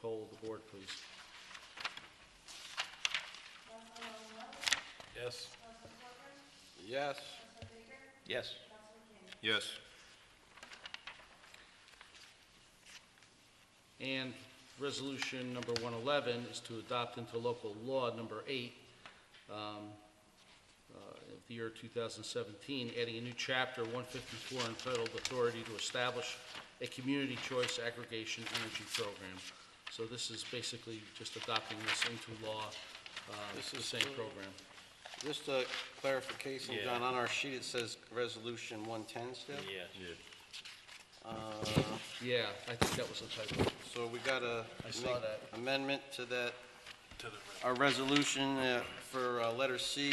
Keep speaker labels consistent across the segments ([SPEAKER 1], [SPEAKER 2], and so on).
[SPEAKER 1] poll the board, please.
[SPEAKER 2] Yes. Yes. Yes.
[SPEAKER 3] Yes.
[SPEAKER 1] And resolution number 111 is to adopt into local law number eight um, uh, of the year 2017, adding a new chapter 154 entitled Authority to Establish a Community Choice Aggregation Energy Program. So this is basically just adopting this into law, uh,
[SPEAKER 2] This
[SPEAKER 1] the
[SPEAKER 2] is
[SPEAKER 1] same
[SPEAKER 2] really-
[SPEAKER 1] program.
[SPEAKER 2] Just a clarification,
[SPEAKER 4] Yeah.
[SPEAKER 2] John, on our sheet, it says Resolution 110 still?
[SPEAKER 4] Yes.
[SPEAKER 2] Uh,
[SPEAKER 1] Yeah, I think that was the typo.
[SPEAKER 2] So we got a
[SPEAKER 1] I saw
[SPEAKER 2] make
[SPEAKER 1] that.
[SPEAKER 2] amendment to that, our resolution uh, for uh, letter C,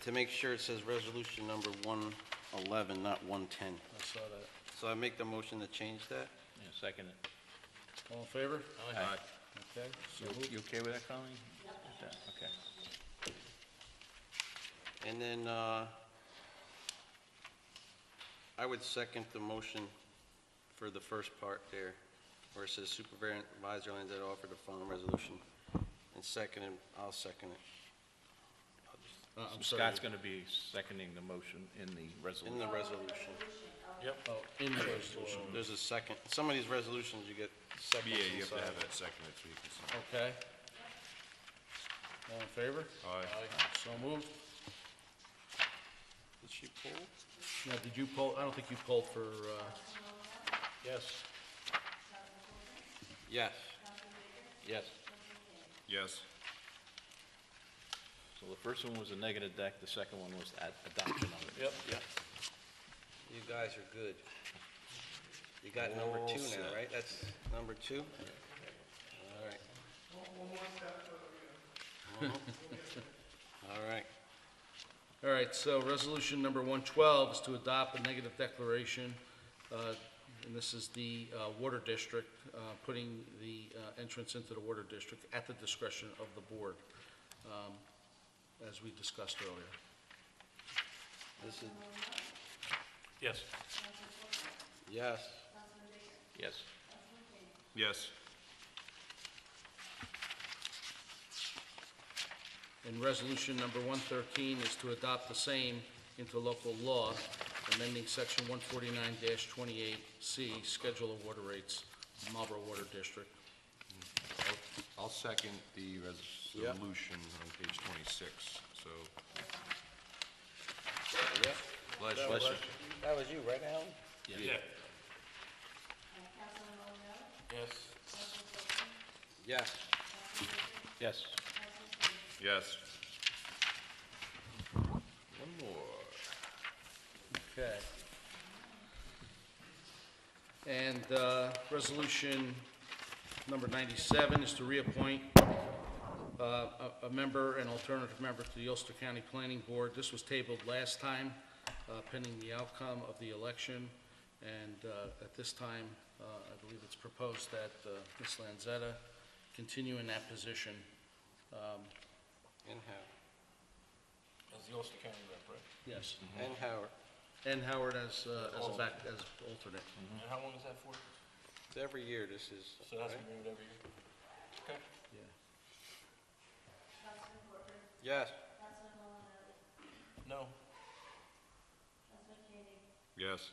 [SPEAKER 2] to make sure it says Resolution number 111, not 110.
[SPEAKER 1] I saw that.
[SPEAKER 2] So I make the motion to change that?
[SPEAKER 4] Yeah, second it.
[SPEAKER 1] All in favor?
[SPEAKER 4] Aye.
[SPEAKER 1] Okay. so
[SPEAKER 4] You-
[SPEAKER 1] moved.
[SPEAKER 4] You okay with that, Colleen? Is that- Okay.
[SPEAKER 2] And then, uh, I would second the motion for the first part there, where it says Supervisor Lands that offer the following resolution. And second, and I'll second it,
[SPEAKER 1] Uh, I'm sorry.
[SPEAKER 4] Scott's going to be seconding the motion in the
[SPEAKER 2] in
[SPEAKER 4] resolution.
[SPEAKER 2] the resolution.
[SPEAKER 1] Oh, in the resolution.
[SPEAKER 2] There's a second, some of these resolutions you get seconds
[SPEAKER 3] Yeah, you have to
[SPEAKER 2] inside.
[SPEAKER 3] have that seconded so you can sign.
[SPEAKER 1] Okay. All in favor?
[SPEAKER 3] Aye.
[SPEAKER 1] So moved.
[SPEAKER 2] Did she pull?
[SPEAKER 1] Now, did you poll, I don't think you polled for, uh,
[SPEAKER 4] Yes.
[SPEAKER 2] Yes.
[SPEAKER 4] Yes.
[SPEAKER 3] Yes.
[SPEAKER 4] So the first one was a negative deck, the second one was ad- adoption of it. Yep.
[SPEAKER 2] You guys are good. You got number
[SPEAKER 3] All
[SPEAKER 2] two
[SPEAKER 3] set.
[SPEAKER 2] now, right? That's number two? All right. Mhm. All right.
[SPEAKER 1] all right, so resolution number 112 is to adopt a negative declaration, uh, and this is the uh, water district, uh, putting the uh, entrance into the water district at the discretion of the board, um, as we discussed earlier.
[SPEAKER 2] This is,
[SPEAKER 4] Yes.
[SPEAKER 2] yes,
[SPEAKER 4] Yes.
[SPEAKER 3] Yes.
[SPEAKER 1] And resolution number 113 is to adopt the same into local law, amending section 149-28C, Schedule of Water Rates, Marlboro Water District.
[SPEAKER 3] I'll second the
[SPEAKER 2] Yep.
[SPEAKER 3] resolution on page 26, so.
[SPEAKER 2] yep.
[SPEAKER 4] Bless you.
[SPEAKER 2] That was you, right, Alan?
[SPEAKER 3] Yeah.
[SPEAKER 2] Yes.
[SPEAKER 4] Yes.
[SPEAKER 3] Yes. One more.
[SPEAKER 1] Okay. And uh, resolution number 97 is to reappoint uh, a a member, an alternative member to the Ulster County Planning Board. This was tabled last time uh, pending the outcome of the election, and uh, at this time, uh, I believe it's proposed that uh, Ms. Lanzetta continue in that position.
[SPEAKER 2] And Howard.
[SPEAKER 1] Yes.
[SPEAKER 2] And Howard.
[SPEAKER 1] And Howard as uh, as a back, as alternate.
[SPEAKER 2] It's every year this is, right?
[SPEAKER 1] Yeah.
[SPEAKER 2] Yes.
[SPEAKER 3] Yes.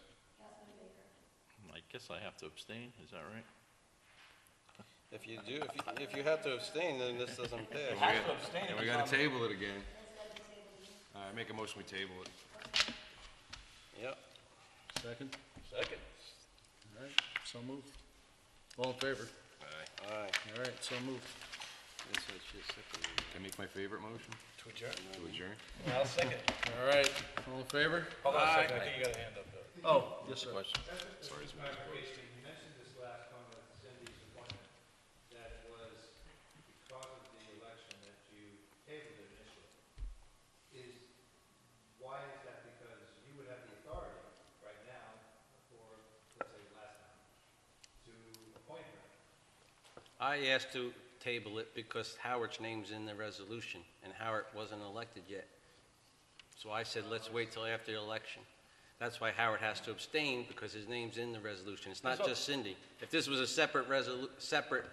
[SPEAKER 4] I guess I have to abstain, is that right?
[SPEAKER 2] If you do, if you, if you have to abstain, then this doesn't pass.
[SPEAKER 3] Have to abstain. And we gotta table it again. All right, make a motion, we table it.
[SPEAKER 2] Yep.
[SPEAKER 1] Second? Second. All right, so moved. All in favor?
[SPEAKER 3] Aye.
[SPEAKER 2] All right.
[SPEAKER 1] All right, so moved.
[SPEAKER 2] This is just sick of you.
[SPEAKER 3] Can I make my favorite motion? To adjourn. To adjourn?
[SPEAKER 5] I'll second.
[SPEAKER 1] All right, all in favor?
[SPEAKER 5] Hold on a second, I think you got a hand up though.
[SPEAKER 1] Oh, yes, sir.
[SPEAKER 4] Question.
[SPEAKER 3] Sorry, it's my
[SPEAKER 6] clarification, you mentioned this last time with Cindy's appointment, that it was because of the election that you tabled it initially. Is, why is that? Because you would have the authority right now, for, let's say, last time, to appoint her.
[SPEAKER 2] I asked to table it because Howard's name's in the resolution, and Howard wasn't elected yet. So I said, let's wait till after the election. That's why Howard has to abstain, because his name's in the resolution. It's not just Cindy. If this was a separate resolu, separate